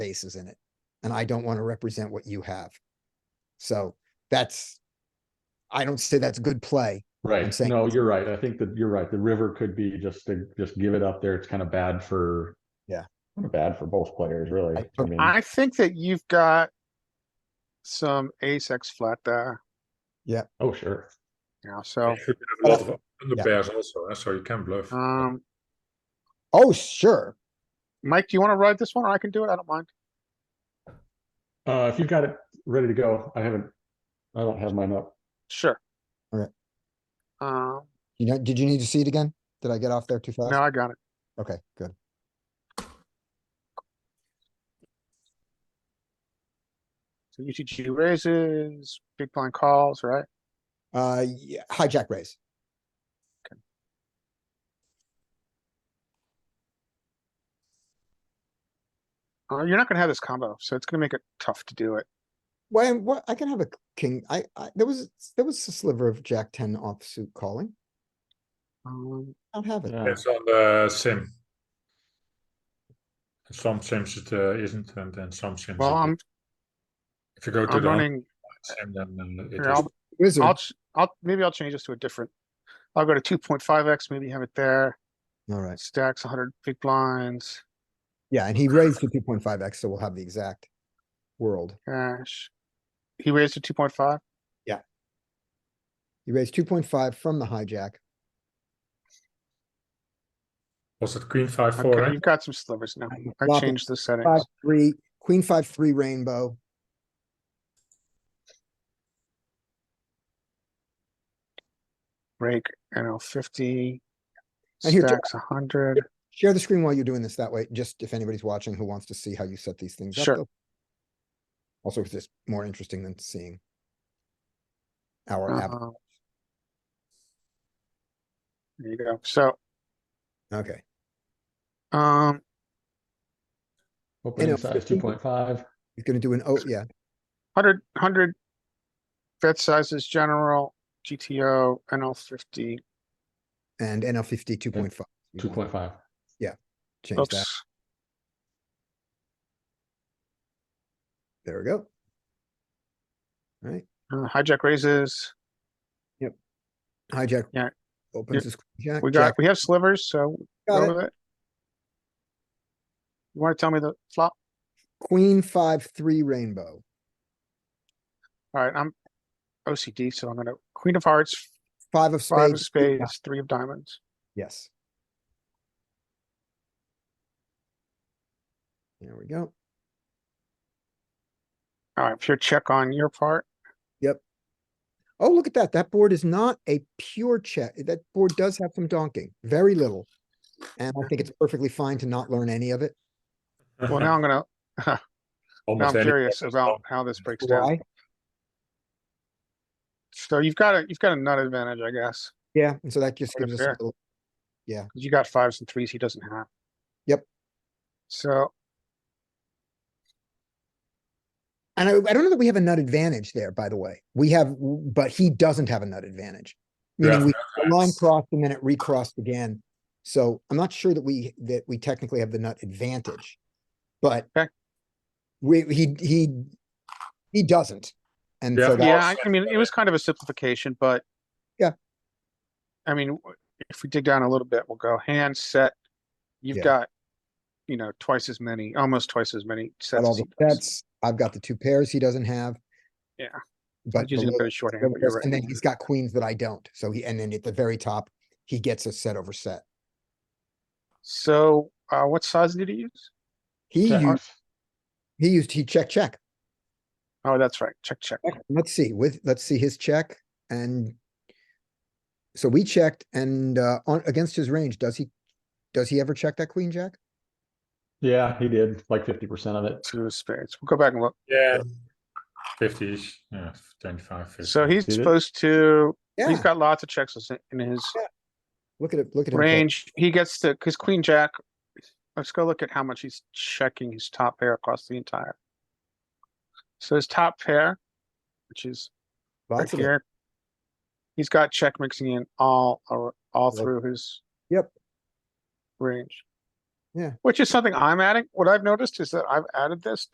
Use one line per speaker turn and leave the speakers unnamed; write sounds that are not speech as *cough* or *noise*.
faces in it. And I don't want to represent what you have. So that's, I don't say that's good play.
Right,
saying-
no, you're right. I think that you're right. The river could be just to just give it up there. It's kind of bad for.
Yeah.
kinda Bad for both players, really.
I-
I mean,
I think that you've got some ace x flat there,
oh, sure.
you know, so,
You have a
But I
lot of under
yeah.
pairs also, eh, so you can bluff.
um,
Oh, sure.
Mike, do you wanna ride this one, or I can do it, I don't mind.
Uh, if you've got it ready to go, I haven't, I don't have mine up.
Sure.
Alright.
Um,
You know, did you need to see it again? Did I get off there too fast?
no, I got it,
Okay, good.
so UTG raises, big blind calls, right?
Uh, yeah, hijack raise.
Uh, you're not gonna have this combo, so it's gonna make it tough to do it,
Well, what, I can have a king, I, I, there was, there was a sliver of jack ten offsuit calling.
um,
I don't have it.
Yeah.
It's on the sim. Some sims it uh, isn't, and then some sims.
well,
it
I'm,
is. If you go to
I'm
the online
running,
sim, then uh, it
here,
is.
I'll,
Wizard,
I'll, ch- I'll, maybe I'll change this to a different, I'll go to two point five X, maybe have it there,
alright.
stacks hundred big blinds,
Yeah, and he raised to two point five X, so we'll have the exact world.
cash. He raised to two point five?
He raised two point five from the hijack.
Was it queen five four?
Okay,
eh?
you've got some slivers now.
I'm
I
flopping
changed the
Five,
settings.
three, queen, five, three rainbow.
Break, you know, fifty.
And here, Jack-
Stacks a hundred.
Share the screen while you're doing this. That way, just if anybody's watching who wants to see how you set these things up.
Sure.
they'll- Also, it's just more interesting than seeing our app.
um, There you go. So, Uh-huh.
Okay,
um,
You
Opening
know,
size two point five.
he's gonna do an, oh, yeah,
hundred, hundred. Bet sizes, general, GTO, NL fifty.
and NL fifty, two point five.
Two point five.
Change that.
Oops.
There we go. Alright,
Uh, Hijack raises.
hijack.
Yeah.
Opens his.
We got, we have slivers, so go with it. You wanna tell me the flop?
Queen, five, three rainbow.
Alright, I'm OCD, so I'm gonna, queen of hearts,
Five of
five of
spades. three of diamonds.
spades, three of diamonds.
Yes. There we go.
Alright, pure check on your part.
Oh, look at that. That board is not a pure check. That board does have some donking, very little. And I think
*laughs*
it's perfectly fine to not learn any of it.
Well, now I'm gonna, now
Uh-huh. Almost
I'm
any-
curious about how this breaks down.
Why?
So you've got a, you've got a nut advantage, I guess.
Yeah, and so that just
Sort of
gives us a
fair.
little,
'cause You got fives and threes he doesn't have.
Yep.
So,
and I, I don't know that we have a nut advantage there, by the way. We have, but he doesn't have a nut advantage. Meaning
Yeah.
we the line crossed and then it recrossed again. So I'm not sure that we, that we technically have the nut advantage. But
Okay.
we, he, he, he doesn't. And so
Yeah.
that,
yeah,
Well,
I, I mean, it was kind of a simplification, but.
Yeah.
I mean, w- if we dig down a little bit, we'll go hand set. You've
Yeah.
got, you know, twice as many, almost twice as many
got
sets.
all
as
the
he does.
sets. I've got the two pairs he doesn't have.
Yeah.
But.
He's using a
below
bit
that,
of shorthand,
below
but you're
this,
right.
And then he's got queens that I don't. So he, and then at the very top, he gets a set over set.
So, uh, what size did he use?
He used,
Checks.
he used, he check, check.
Oh, that's right. Check, check.
Let's see, with, let's see his check and. So we checked and, uh, on, against his range, does he, does he ever check that queen jack?
Yeah, he did like fifty percent of it.
Two of spades. We'll go back and look.
Yeah. Fifties, yeah, twenty-five, fifty.
So he's
Did it?
supposed to, he's
Yeah,
got lots of checks in his
look at it, look at him. play.
range. He gets to, cause queen jack. Let's go look at how much he's checking his top pair across the entire. So his top pair, which is right
Lots of it.
here. He's got check mixing in all, ar- all
Yep.
through his.
Yep.
Range.
Yeah.
Which is something I'm adding. What I've noticed is that I've added this